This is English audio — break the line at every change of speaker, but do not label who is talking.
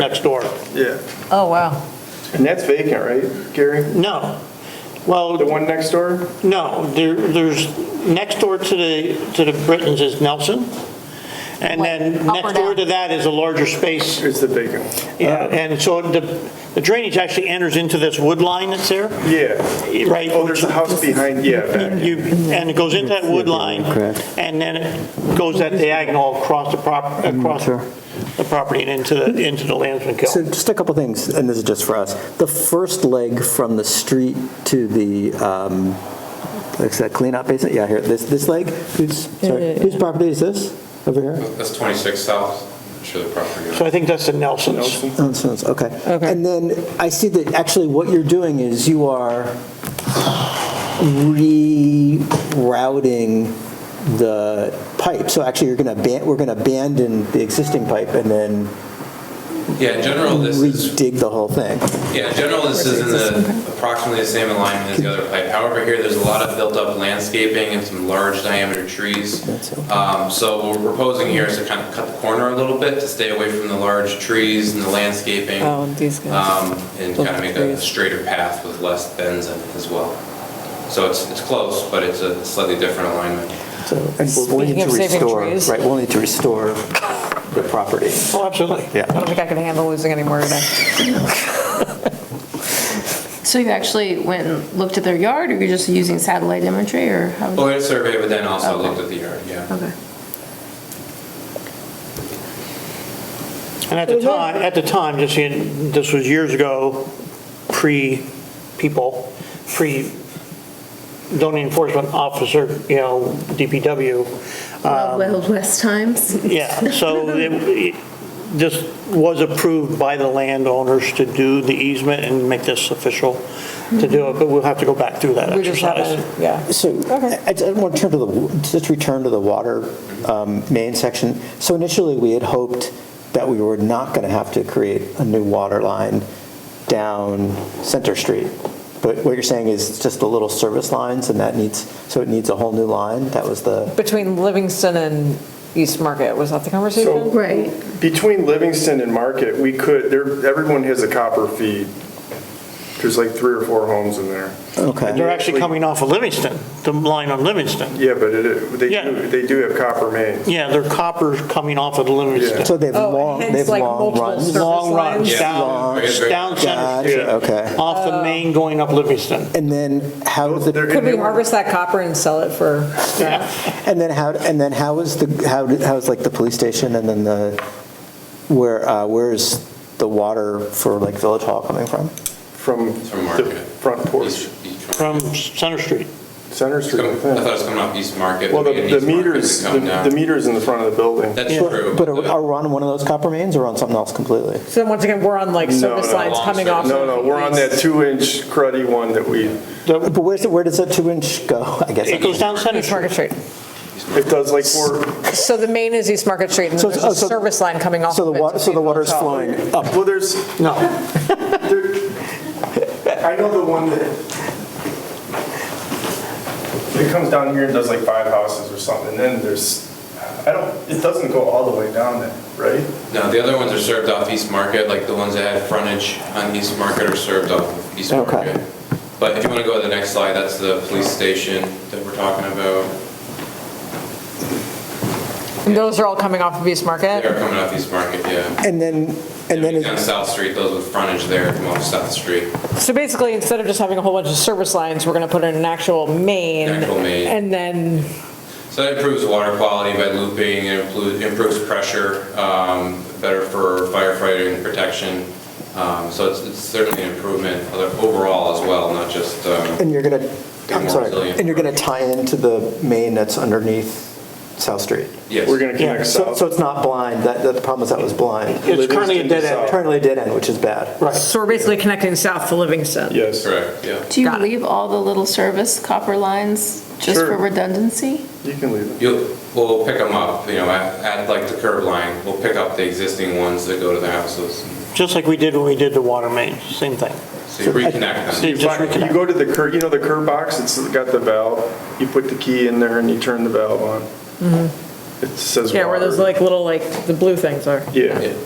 next door.
Yeah,
Oh, wow.
and that's vacant, right, Gary?
No. Well,
The one next door?
No, there, there's, next door to the, to the Britons is Nelson. And then
Wait, up or
next door
down?
to that is a larger space.
It's the vacant.
Yeah, And so the, the drainage actually enters into this wood line that's there,
Yeah.
right?
Oh, there's a house behind, yeah, back.
You, and it goes into that wood line.
Correct.
And then it goes that diagonal across the prop, across
Mm, sure.
the property and into the, into the Landsman
So
Kill.
just a couple things, and this is just for us. The first leg from the street to the, um, what's that cleanout basin? Yeah, here, this, this leg, whose, sorry, whose property is this over here?
That's 26 South, sure the property. owner.
So I think that's the Nelsons.
Nelson?
Oh, so it's- Okay. Okay. And then I see that actually what you're doing is you are rerouting the pipe. So actually, you're going to, we're going to abandon the existing pipe and then
Yeah, in general, this is,
redig the whole thing.
yeah, in general, this is in the, approximately the same alignment as the other pipe. However, here, there's a lot of built-up landscaping and some large diameter trees.
That's it.
Um, So what we're proposing here is to kind of cut the corner a little bit to stay away from the large trees and the landscaping.
Oh, and these guys.
um, And kind of make a
Trees.
straighter path with less bends in it as well. So it's, it's close, but it's a slightly different alignment.
So, and we'll- we'll
Speaking
need
of
to
saving
restore,
trees.
right, we'll need to restore the property.
Oh, absolutely.
I don't think I can handle losing any more of that.
So you actually went and looked at their yard, or you're just using satellite imagery, or how?
Well, I had a survey, but then also
Okay.
looked at the yard, yeah.
Okay.
And at the time, at the time, just seeing, this was years ago, pre-people, pre zoning enforcement officer, you know, DPW.
Wild
Um,
Wild West times?
Yeah, so it- it- this was approved by the landowners to do the easement and make this official to do it, but we'll have to go back through that
We just have
exercise.
a, yeah.
So
Okay.
I I want to turn to the, w- just return to the water um, main section. So initially, we had hoped that we were not going to have to create a new water line down Center Street. But what you're saying is it's just the little service lines and that needs, so it needs a whole new line? That was the,
Between Livingston and East Market, was that the
So-
conversation?
Right.
Between Livingston and Market, we could, there, everyone has a copper feed. There's like three or four homes in there.
okay.
They're actually coming off of Livingston, the line on Livingston.
Yeah, but it, they
Yeah.
do, they do have copper mains.
Yeah, they're coppers coming off of Livingston.
So they've
Oh,
long,
and hence
they've
like
long
multiple
runs.
service
Long
lines?
runs down,
Long-
down Center Street.
Gotcha, okay.
Off the main going up Livingston.
And then how is it?
They're-
Could we harvest that copper and sell it for,
And then how, and then how is the, how, how's like the police station and then the, where, uh, where's the water for like Village Hall coming from?
From
From
the
Market.
front porch,
Each- each one.
From Center Street.
Center
It's
Street,
coming-
I
I thought it
think.
was coming off East Market.
Well, the,
beginning
the
of East Market,
meters,
it's coming
the
down.
the meters in the front of the building.
That's true.
But are are we on one of those copper mains or on something else completely?
so then once again, we're on like
No,
service
no,
lines
long
coming
service.
off.
No,
of
no, we're on
these-
that two-inch cruddy one that we,
But where's, it- where does that two inch go? I guess.
It goes down Center
East Market
Street.
Street.
it does like four,
So the main is East Market Street, and
So
then
it's-
there's a
oh, so-
service line coming off
So the
of it.
water, so the water's flowing up.
well, there's,
No,
there- I know the one that, it comes down here and does like five houses or something, and then there's, I don't, it doesn't go all the way down there, right?
No, the other ones are served off East Market, like the ones that had frontage on East Market are served off of East
Okay.
Market. But if you want to go to the next slide, that's the police station that we're talking about.
And those are all coming off of East
They
Market?
are coming off East Market, yeah.
And then, and then,
Down
it-
South Street, those with frontage there come off South Street.
So basically, instead of just having a whole bunch of service lines, we're going to put in an actual main.
Actual main.
And then
So that improves water quality by looping, it implu- improves pressure, um, better for firefighting protection. Um, So it's it's certainly an improvement other- overall as well, not just, um,
and you're gonna, I'm sorry,
Resilient.
and you're gonna tie into the main that's underneath South Street.
yes.
We're gonna
Yeah,
connect
So,
south.
so it's not blind, that, that- the problem is that was blind.
it's currently a dead end.
Currently a dead end, which is bad.
Right.
So we're basically connecting south to Livingston.
Yes,
Correct, yeah.
Do you
Got it.
leave all the little service copper lines just
Sure.
for redundancy?
you can leave it.
You'll, we'll pick them up, you know, at, at like the curb line, we'll pick up the existing ones that go to the houses.
Just like we did when we did the water main, same thing.
So you reconnect them.
You just
You
reconnect.
go to the curb, you know the curb box, it's got the valve, you put the key in there and you turn the valve on. It says water.
Yeah, where those like little, like, the blue things are.
Yeah,
Yeah.